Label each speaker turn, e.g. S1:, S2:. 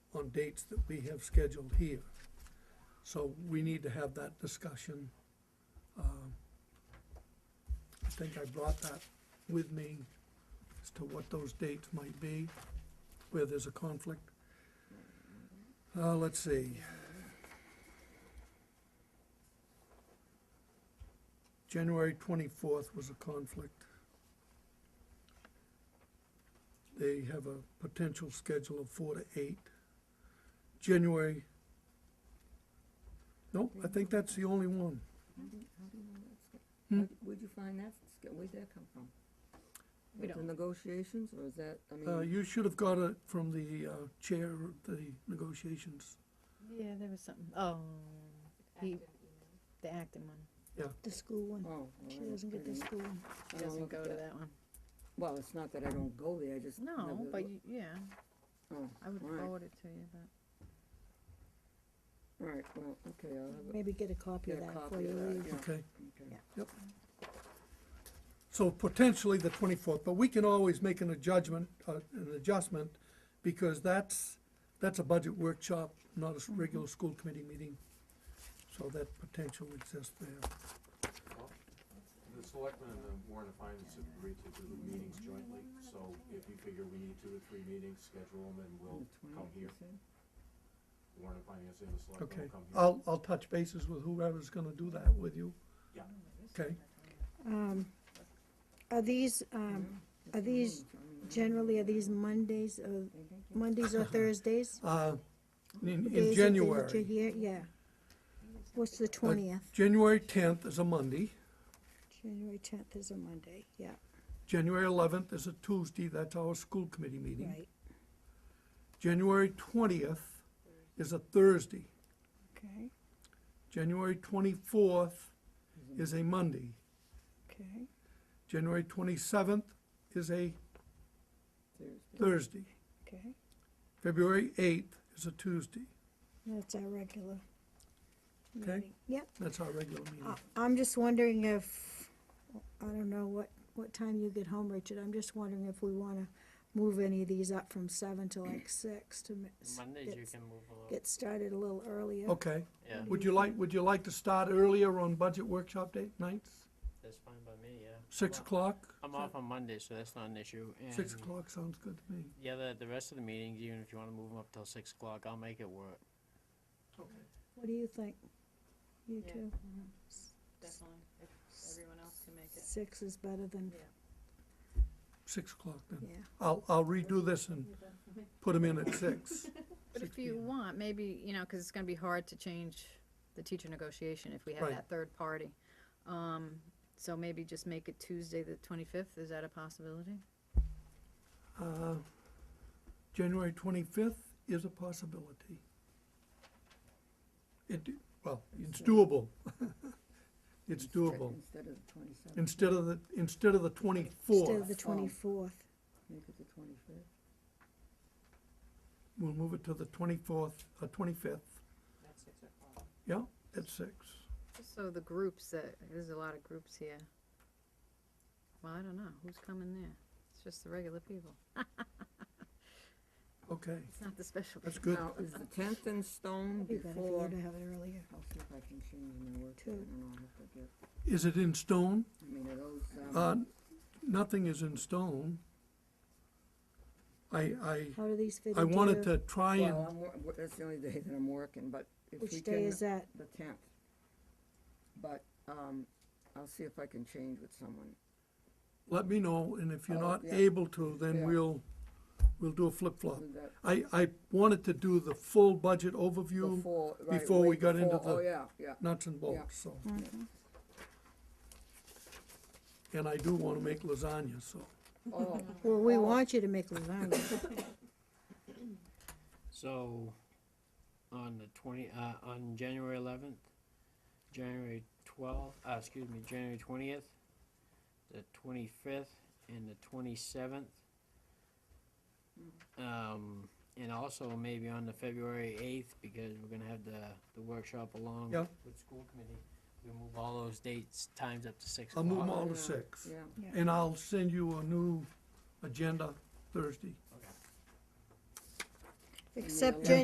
S1: on dates that we have scheduled here. So we need to have that discussion. Um, I think I brought that with me as to what those dates might be, where there's a conflict. Uh, let's see. January twenty-fourth was a conflict. They have a potential schedule of four to eight. January, nope, I think that's the only one.
S2: How do you- how do you know that's go-
S1: Hmm?
S2: Where'd- Where'd you find that, sk- where'd that come from?
S3: We
S2: The
S3: don't.
S2: negotiations, or is that, I
S1: Uh,
S2: mean,
S1: you should have got it from the, uh, chair of the negotiations.
S3: Yeah, there was something, oh, he, the acting one,
S4: The school one.
S2: oh. all
S4: She
S2: right,
S4: doesn't get
S2: I
S4: the
S2: don't-
S4: school one.
S2: I
S3: he
S2: don't
S3: doesn't
S2: look
S3: go
S2: at
S3: to that one.
S2: Well, it's not that I don't go there, I just.
S3: No,
S2: never
S3: but,
S2: look.
S3: you- yeah,
S2: Oh,
S3: I would
S2: Alright.
S3: forward it to you, but.
S2: all right, well, okay, I'll have a,
S4: Maybe get a copy of
S2: Get a
S4: that
S2: copy
S4: for
S2: of
S4: you.
S2: that,
S4: later.
S2: yeah.
S1: Okay,
S2: okay.
S1: so potentially the twenty-fourth, but we can always make an adjustment, uh, an adjustment, because that's, that's a budget workshop, not a s- regular school committee meeting. So that potential exists there.
S5: The selectmen and the Warren and Finance have agreed to do the meetings jointly, so if you figure we need two or three meetings, schedule them, and we'll
S2: The
S5: come
S2: 20th, you
S5: here.
S2: said?
S5: Warren and Finance and the
S1: Okay,
S5: selectmen will come here.
S1: I'll, I'll touch bases with whoever's gonna do that with you.
S5: Yeah.
S1: Okay,
S4: Um, Are these, um,
S2: Yeah,
S4: are
S2: the
S4: these
S2: 20th, I mean,
S4: generally, are these Mondays or,
S2: they think you-
S4: Mondays or Thursdays?
S1: uh, in,
S4: The days that
S1: in
S4: they- that you're
S1: January,
S4: here? Yeah. What's the twentieth?
S1: January tenth is a Monday,
S4: January tenth is a Monday, yeah,
S1: January eleventh is a Tuesday, that's our school committee meeting.
S4: right.
S1: January twentieth is a Thursday.
S4: Okay,
S1: January twenty-fourth is a Monday.
S4: okay.
S1: January twenty-seventh is a
S2: Thursday.
S1: Thursday.
S4: Okay,
S1: February eighth is a Tuesday.
S4: that's our regular.
S1: Okay.
S4: meeting. Yep,
S1: That's our regular meeting.
S3: Ah,
S4: I- I'm just wondering if, I don't know what, what time you get home, Richard, I'm just wondering if we wanna move any of these up from seven to like six to. mi- s-
S6: Mondays you
S4: get-
S6: can move a little.
S4: Get started a little earlier.
S1: Okay,
S6: yeah,
S1: would you like, would you like to start earlier on budget workshop date nights?
S6: that's fine by me. Yeah.
S1: Six
S6: Well,
S1: o'clock?
S6: I'm off on Monday, so that's not an issue. And
S1: Six o'clock sounds good to me.
S6: Yeah, the, the rest of the meetings, even if you want to move them up till six o'clock, I'll make it work.
S4: What do you think? You
S3: Yeah.
S4: two,
S3: Mm-hmm. Definitely, if everyone else can make
S4: six is better than,
S1: Six o'clock then.
S4: yeah,
S1: I'll, I'll redo this and put them in at six.
S3: But if
S1: 6
S3: you
S1: p.m.
S3: want, maybe, you know, because it's going to be hard to change the teacher negotiation if we have
S1: Right.
S3: that third party. Um, so maybe just make it Tuesday, the twenty-fifth, is that a possibility?
S1: Uh, January twenty-fifth is a possibility. It, well, it's doable. It's
S2: Instead-
S1: doable.
S2: Instead of the twenty-seventh,
S1: Instead of the, instead of the
S4: instead of
S1: twenty-fourth,
S4: the twenty-fourth,
S2: make it the twenty-fifth.
S1: we'll move it to the twenty-fourth, uh, twenty-fifth. Yeah, at six.
S3: So the groups that, there's a lot of groups here. Well, I don't know, who's coming there? It's just the regular people,
S1: Okay,
S3: it's not the special
S1: that's
S3: people.
S1: good.
S2: Now, is the tenth in stone
S4: it'd be better for
S2: before?
S4: you to have it earlier.
S2: I'll see if I can change my work, I
S4: Two.
S2: don't know, I'll have to get,
S1: Is it in stone?
S2: I mean, are those,
S1: Uh,
S2: um,
S1: nothing is in stone. I, I,
S4: How do these fit
S1: I
S4: into
S1: wanted to
S4: your-
S1: try
S2: well,
S1: and,
S2: I'm, wor- wor- that's the only day that I'm working, but if we can.
S4: Which day is that?
S2: The tenth. But, um, I'll see if I can change with someone.
S1: let me know, and if you're
S2: Oh,
S1: not
S2: yeah.
S1: able to, then
S2: Yeah.
S1: we'll, we'll do a flip-flop.
S2: Do that
S1: I, I wanted to do the full budget overview,
S2: Before, right,
S1: before we
S2: way
S1: got into
S2: before. Oh,
S1: the-
S2: yeah, yeah.
S1: nuts and bolts, so. And I do wanna make lasagna, so.
S2: Oh,
S4: Well, we
S2: Oh.
S4: want you to make lasagna.
S6: So, on the twenty, uh, on January eleventh, January twelfth, uh, excuse me, January twentieth, the twenty-fifth, and the twenty-seventh. Um, and also maybe on the February eighth, because we're gonna have the, the workshop along
S1: Yeah.
S6: with school committee. We move all those dates, times up to six
S1: I'll
S6: o'clock.
S1: move them all
S2: Yeah.
S1: to six.
S2: yeah.
S1: And I'll send you a new agenda Thursday.
S4: Except
S2: Yeah.
S4: Jan,